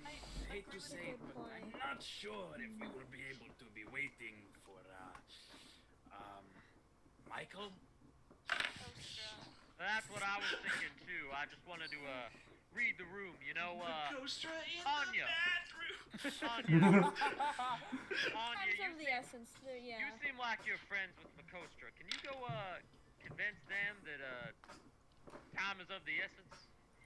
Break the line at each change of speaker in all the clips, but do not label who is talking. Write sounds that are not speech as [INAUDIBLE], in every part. make to say, but I'm not sure if we will be able to be waiting for, uh, um, Michael?
That's what I was thinking too. I just wanted to uh read the room, you know. Uh,
Kostra in
Anya.
the
[LAUGHS]
Anya, [LAUGHS] Anya,
Time's
you,
of the essence, the-
you
yeah.
seem like you're friends with Makostra. Can you go uh convince them that uh time is of the essence?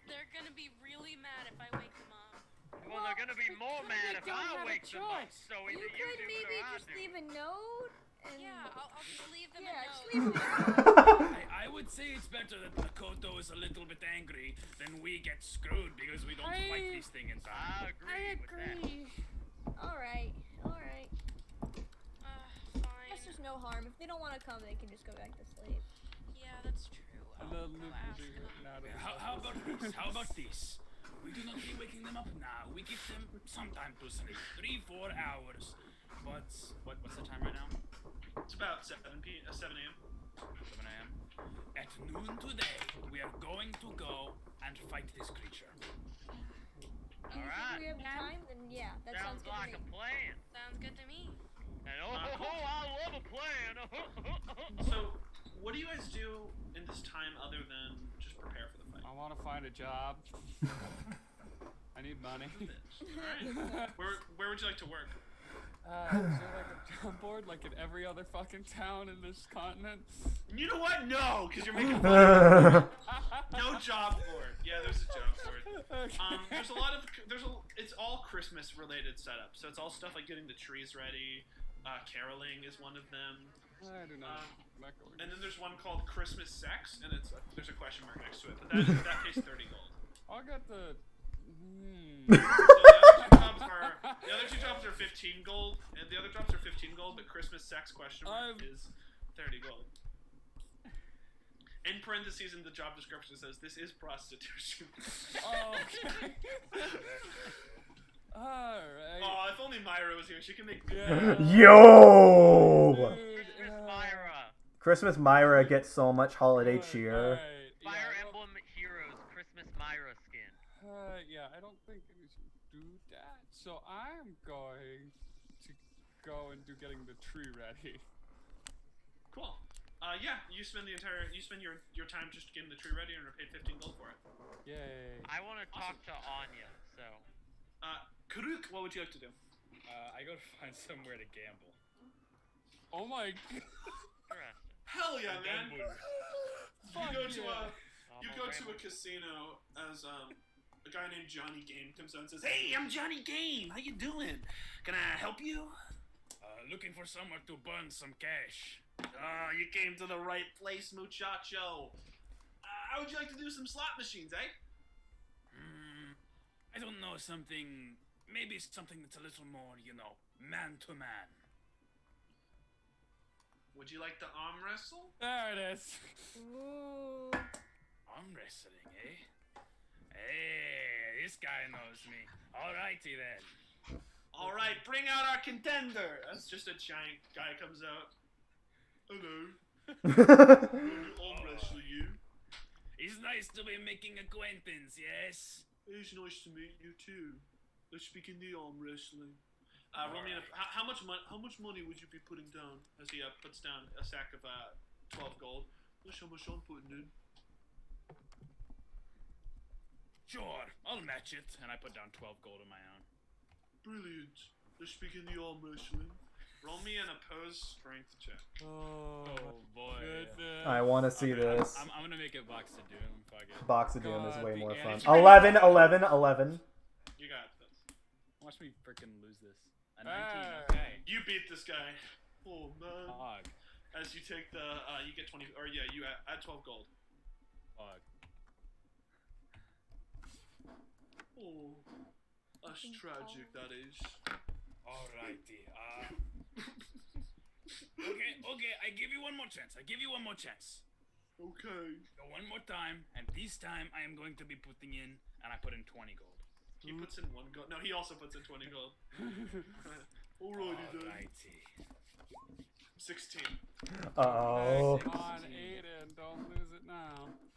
They're gonna be really mad if I wake them up.
Well, they're gonna be more
Well, they
mad if
don't have a
I wake them up.
choice.
So
You
either you,
could
do
maybe
it or I
just
do.
leave a note and.
Yeah, I'll, I'll just leave them
Yeah,
a
just
note.
leave a note.
bathroom! I, I would say it's better that Makoto is a little bit angry than we get screwed because we don't
I-
fight this thing in time.
I agree.
I
With that.
agree. Alright, alright.
Uh, fine.
That's just no harm. If they don't want to come, they can just go back to sleep.
Yeah, that's true. I'll,
The
I'll
loop will
ask
be
them.
written out of
How,
the
how about this?
puzzle.
How about this? We do not be waking them up now. We give them some time to sleep. Three, four hours. But, what, what's the time right now?
It's about 7 p. Uh, 7 a.m.
7 a.m. At noon today, we are going to go and fight this creature.
And if
Alright.
we have
Yeah.
time, then yeah, that sounds,
Sounds
good
like
to
a
me.
plan.
Sounds good to me.
And [LAUGHS] oh,
Uh,
ho, ho, I love a plan. [LAUGHS]
So, what do you guys do in this time other than just prepare for the fight?
I want to find a job. I need money. [LAUGHS]
Alright. Where, where would you like to work?
Uh, is there like a job board like in every other fucking town in this
[LAUGHS]
continent?
You know what? No, because you're
[LAUGHS]
making fun.
That's
No job board. Yeah, there's a job
[LAUGHS]
board.
Okay.
uh,
Um, there's a lot of there's a it's all Christmas related setup. So it's all stuff like getting the trees ready. Uh, caroling is one of them. Um,
I do not. like organs.
And then there's one called Christmas Sex, and it's there's a question mark next to it, but that, is, that pays 30 gold.
I'll get the. Hmm.
So the other two jobs are the other two jobs are 15 gold, and the other jobs are 15 gold, but Christmas Sex question mark
I've-
is 30 gold. In parentheses, in the job description says this is prostitution.
oh, okay. [LAUGHS] Alright.
oh, if only Myra was here, she can make.
Yeah.
[LAUGHS] Yo!
Dude, uh,
Christmas
yeah.
Myra.
Christmas Myra gets so much holiday
Alright,
cheer. [LAUGHS]
alright, yeah,
Fire
I don't-
Emblem Heroes Christmas Myra skin.
Uh, yeah, I don't think we should do that. So I'm going to go and do getting the tree ready.
Cool. Uh, yeah, you spend the entire you spend your your time just getting the tree ready and are paid 15 gold for it.
Yay.
I want to talk to Anya. So
Uh, Karuk, what would you like to do?
Uh, I gotta [LAUGHS] find somewhere to gamble.
Oh my [LAUGHS] god.
interesting.
Hell yeah, man! you
Fuck
go to uh,
yeah.
a
Oh,
you
my
go to a
grandma-
casino as um, a guy named Johnny Game comes out and says, "Hey, I'm Johnny Game. How you doing? Can I help you?
Uh, looking for somewhere to burn some cash.
Ah, you came to the right place, muchacho. Uh, how would you like to do some slot machines, eh?
Hmm. I don't know, something. Maybe something that's a little more, you know, man to man.
Would you like to arm wrestle?
There it is.
Ooh.
Arm wrestling, eh? Hey, this guy knows me. Alrighty then.
All right, bring out our contender. That's just a giant guy comes out. Hello, I'll wrestle you.
It's nice to be making acquaintance, yes?
It's nice to meet you too. Let's begin the arm wrestling. Uh, roll me
Alright.
a- how, how much money? How much money would you be putting down? As he uh, puts down a sack of uh, twelve gold. That's how much I'm putting in.
Sure, I'll match it. And I put down 12 gold of my own.
Brilliant. Let's begin the arm wrestling. Roll me an opposed strength check.
Oh,
boy.
goodness.
I want to see
I'm-
this.
I'm, I'm gonna make it Box of Doom. Fuck it.
Box of Doom is
God,
way
the
more fun.
animation-
11, 11, 11.
You got this.
Watch me freaking lose this. A 19,
Ah.
okay.
You beat this guy. Oh man.
Fuck.
As you take the, uh, you get twenty. Or yeah, you add, add twelve gold.
Fuck.
Oh, that's tragic. That is.
Alrighty. Uh, okay, okay, I give you one more chance. I give you one more chance.
Okay.
Go one more time, and this time I am going to be putting in, and I put in 20 gold.
He puts in one gold. No, he also puts in 20 gold. Alrighty then.
Alrighty.
16.
Uh oh.
Come on, Aiden. Don't lose it now.